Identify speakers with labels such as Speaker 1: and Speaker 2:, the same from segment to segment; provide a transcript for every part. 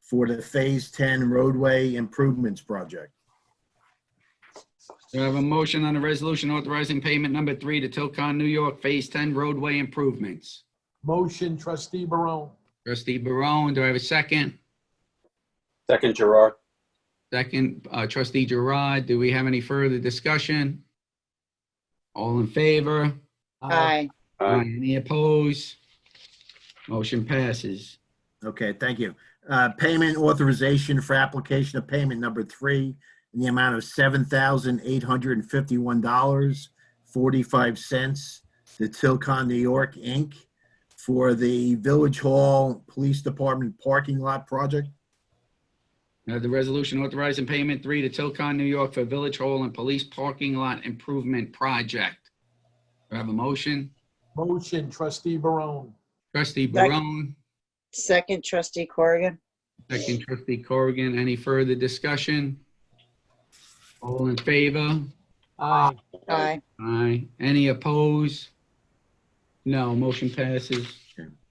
Speaker 1: for the Phase 10 roadway improvements project.
Speaker 2: Do I have a motion on the resolution authorizing payment number three to Tilcon New York Phase 10 roadway improvements?
Speaker 3: Motion trustee Barone.
Speaker 2: Trustee Barone, do I have a second?
Speaker 4: Second Gerard.
Speaker 2: Second, uh, trustee Gerard, do we have any further discussion? All in favor?
Speaker 5: Aye.
Speaker 4: Aye.
Speaker 2: Any opposed? Motion passes.
Speaker 1: Okay, thank you. Uh, Payment authorization for application of payment number three in the amount of $7,851.45 to Tilcon New York, Inc. for the Village Hall Police Department parking lot project.
Speaker 2: Now, the resolution authorizing payment three to Tilcon New York for Village Hall and Police Parking Lot Improvement Project. Do I have a motion?
Speaker 3: Motion trustee Barone.
Speaker 2: Trustee
Speaker 5: Second.
Speaker 2: Barone?
Speaker 5: Second trustee Corrigan.
Speaker 2: Second trustee Corrigan, any further discussion? All in favor?
Speaker 3: Aye.
Speaker 5: Aye.
Speaker 2: Aye. Any opposed? No, motion passes.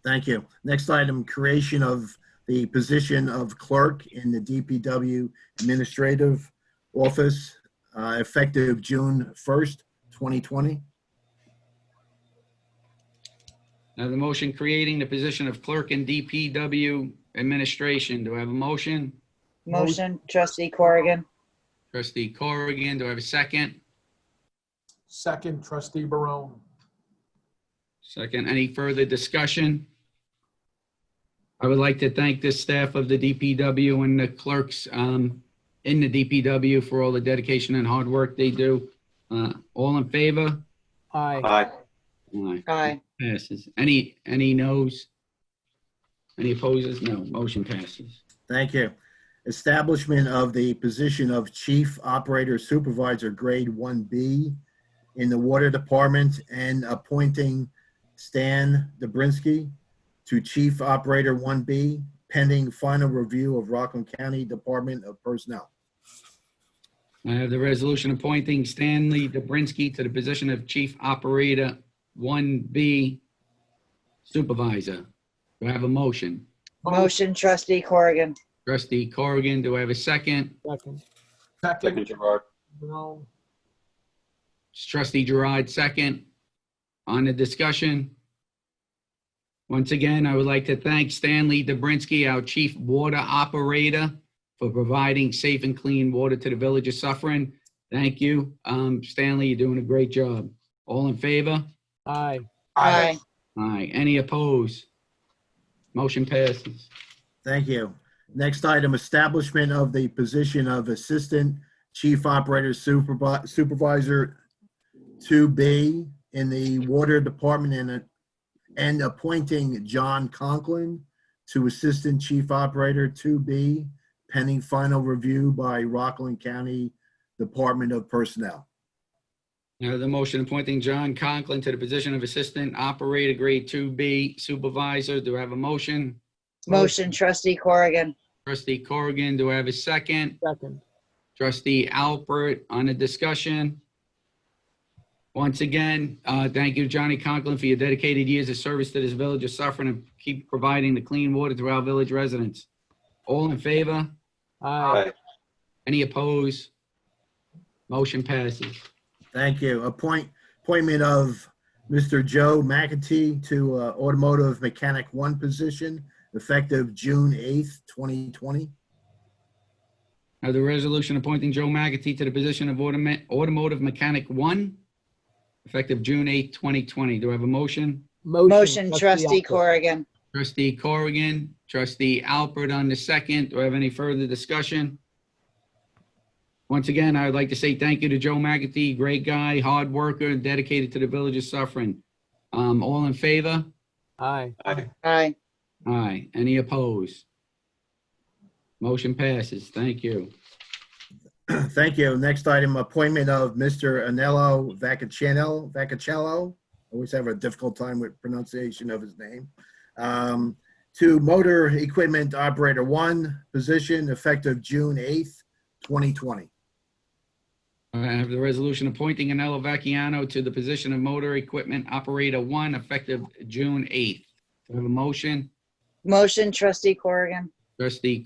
Speaker 1: Thank you. Next item, creation of the position of clerk in the DPW Administrative Office, uh, effective June 1st, 2020.
Speaker 2: Now the motion creating the position of clerk in DPW administration. Do I have a motion?
Speaker 5: Motion trustee Corrigan.
Speaker 2: Trustee Corrigan, do I have a second?
Speaker 3: Second trustee Barone.
Speaker 2: Second, any further discussion? I would like to thank the staff of the DPW and the clerks um, in the DPW for all the dedication and hard work they do. Uh, All in favor?
Speaker 3: Aye.
Speaker 4: Aye.
Speaker 2: Aye.
Speaker 5: Aye.
Speaker 2: Passes. Any, any noes? Any opposes? No. Motion passes.
Speaker 1: Thank you. Establishment of the position of Chief Operator Supervisor, Grade 1B, in the Water Department and appointing Stan Dobrinsky to Chief Operator 1B pending final review of Rockland County Department of Personnel.
Speaker 2: I have the resolution appointing Stanley Dobrinsky to the position of Chief Operator 1B Supervisor. Do I have a motion?
Speaker 5: Motion trustee Corrigan.
Speaker 2: Trustee Corrigan, do I have a second?
Speaker 3: Second.
Speaker 4: Second
Speaker 3: Second
Speaker 4: Gerard.
Speaker 3: Barone.
Speaker 2: Trustee Gerard, second. On the discussion. Once again, I would like to thank Stanley Dobrinsky, our chief water operator, for providing safe and clean water to the village of Suffering. Thank you. Um, Stanley, you're doing a great job. All in favor?
Speaker 3: Aye.
Speaker 5: Aye.
Speaker 2: Aye. Any opposed? Motion passes.
Speaker 1: Thank you. Next item, establishment of the position of Assistant Chief Operator Supervi- Supervisor 2B in the Water Department and, and appointing John Conklin to Assistant Chief Operator 2B pending final review by Rockland County Department of Personnel.
Speaker 2: Now, the motion appointing John Conklin to the position of Assistant Operator Grade 2B Supervisor. Do I have a motion?
Speaker 5: Motion trustee Corrigan.
Speaker 2: Trustee Corrigan, do I have a second?
Speaker 3: Second.
Speaker 2: Trustee Alpert on the discussion. Once again, uh, thank you, Johnny Conklin, for your dedicated years of service to this village of suffering and keep providing the clean water to our village residents. All in favor?
Speaker 3: Aye.
Speaker 2: Any opposed? Motion passes.
Speaker 1: Thank you. Appoint, appointment of Mr. Joe McAtee to uh, Automotive Mechanic One position effective June 8th, 2020.
Speaker 2: Now the resolution appointing Joe McAtee to the position of automa- automotive mechanic one, effective June 8, 2020. Do I have a motion?
Speaker 5: Motion trustee Corrigan.
Speaker 2: Trustee Corrigan, trustee Alpert on the second. Do I have any further discussion? Once again, I would like to say thank you to Joe McAtee, great guy, hard worker, dedicated to the village of suffering. Um, all in favor?
Speaker 3: Aye.
Speaker 4: Aye.
Speaker 5: Aye.
Speaker 2: Aye. Any opposed? Motion passes. Thank you.
Speaker 1: Thank you. Next item, appointment of Mr. Anello Vacchicello, Vacchicello. Always have a difficult time with pronunciation of his name. Um, To Motor Equipment Operator One position effective June 8th, 2020.
Speaker 2: I have the resolution appointing Anello Vacchiano to the position of motor equipment operator one effective June 8th. Do I have a motion?
Speaker 5: Motion trustee Corrigan.
Speaker 2: Trustee